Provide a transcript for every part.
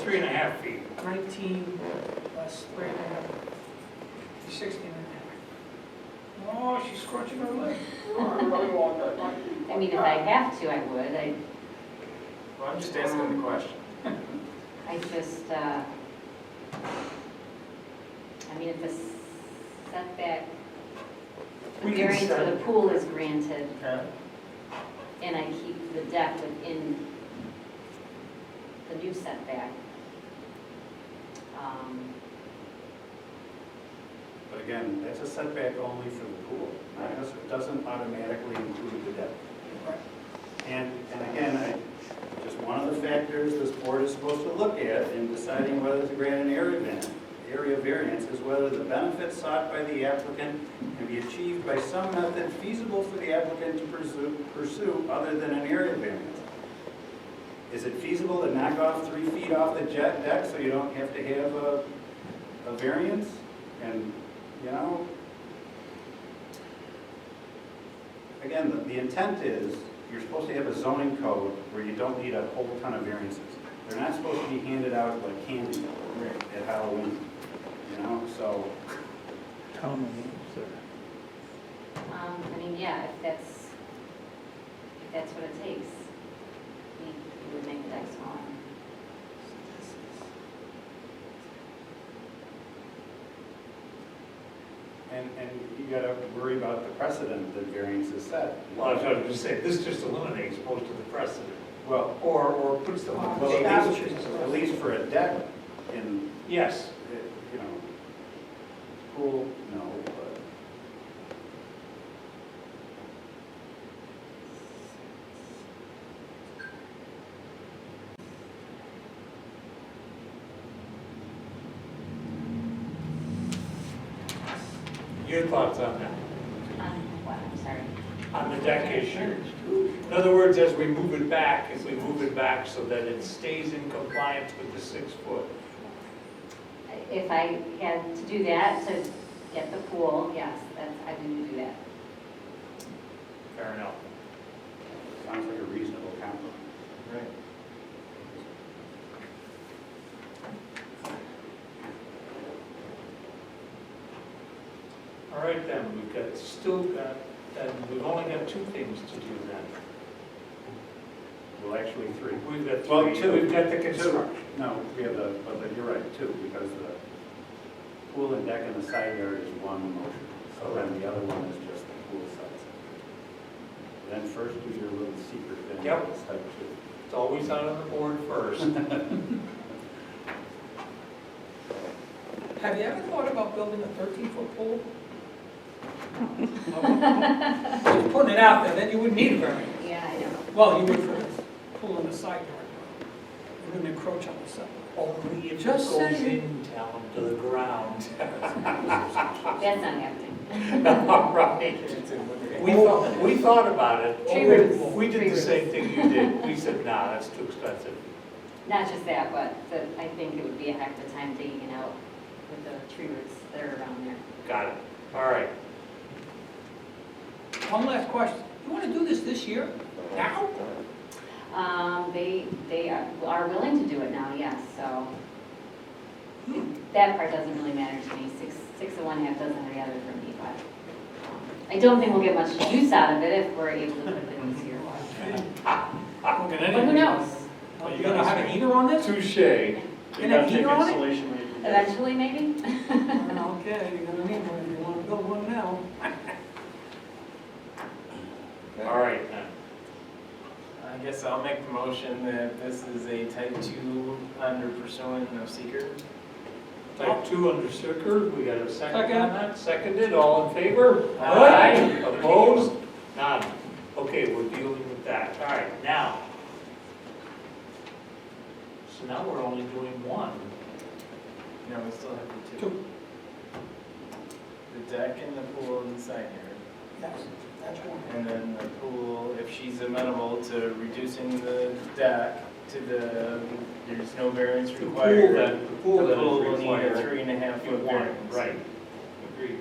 three and a half feet. 19 plus three and a half, 16 and a Oh, she's scorching her leg. I really want that. I mean, if I have to, I would. I, Well, I'm just asking the question. I just, uh, I mean, if the setback, the We can variance for set- the pool is granted, Okay. and I keep the deck within the new setback. Um, But again, that's a setback only for the pool. It doesn't- It doesn't automatically include the deck. half. And, and again, I, just one of the factors this board is supposed to look at in deciding whether to grant an area variance, area variance is whether the benefits sought by the applicant can be achieved by some method feasible for the applicant to pursue, pursue other than an area variance. Is it feasible to knock off three feet off the jet deck so you don't have to have a, a variance? And, you know, again, the- the intent is, you're supposed to have a zoning code where you don't need a whole ton of variances. They're not supposed to be handed out like candy at Halloween, you know, so, um, I mean, yeah, if that's, if that's what it takes, we we would make the deck smaller. and, and you gotta worry about the precedent that variance is set. Well, I was going to say, this just eliminates most of the precedent, Well, or, or puts them on. well, at least, at least for a deck in, eh, Yes, you know, pool, no, but, your thoughts on that, Um, wow, I'm sorry. on the deck issue? In other words, as we move it back, if we move it back so that it stays in compliance with the six foot. If I had to do that, to get the pool, yes, that's, I would do that. Fair enough. sounds like a reasonable compromise. Right. All right then, we've got, still got, then we've only got two things to do then. Well, actually, three. We've got Well, three, two. we've got the Two, construction. no, we have the, but the- you're right, two, because the pool and deck and the side yard is one motion. So then the other one is just the pool side setback. Then first do your little secret thing. Yep. that's type two. It's always out on the board first. Have you ever thought about building a 13-foot pool? Just putting it out there, then you wouldn't need a variance. Yeah, I know. Well, you would for this pool in the side yard. You wouldn't encroach on the side. Only if it Just goes saying. in down to the ground. That's not happening. All right. We thought, we thought about it. Tree roots. We Tree did the roots. same thing you did. We said, nah, that's too expensive. Not just that, but the- I think it would be a heck of a time digging it out with the tree roots that are around there. Got it. All right. One last question. You want to do this this year? Now? Um, They, they are are willing to do it now, yes, so that part doesn't really matter to me. Six, six of one, half dozen of the other for me, but um, I don't think we'll get much use out of it if we're able to put it in this year. But who knows? Are you going to have an heater on this? Touche. And a heater on it? Eventually, maybe? Okay, you're going to need one if you want to build one now. All right. then. I guess I'll make the motion that this is a type two under pursuant of seeker. Type two under Sirkir, we got a second on Second. that? Seconded, all in favor? Aye. Opposed? None. Okay, we're dealing with that. All right, now. So now we're only doing one. No, we still have the two. Two. The deck and the pool and the side yard. That's, that's one. And then the pool, if she's amenable to reducing the deck to the, there's no variance The pool required. then- the pool then is will need required. a three and a half foot One, variance. right. Agreed.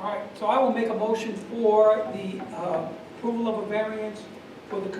All right, so I will make a motion for the uh, approval of a variance for the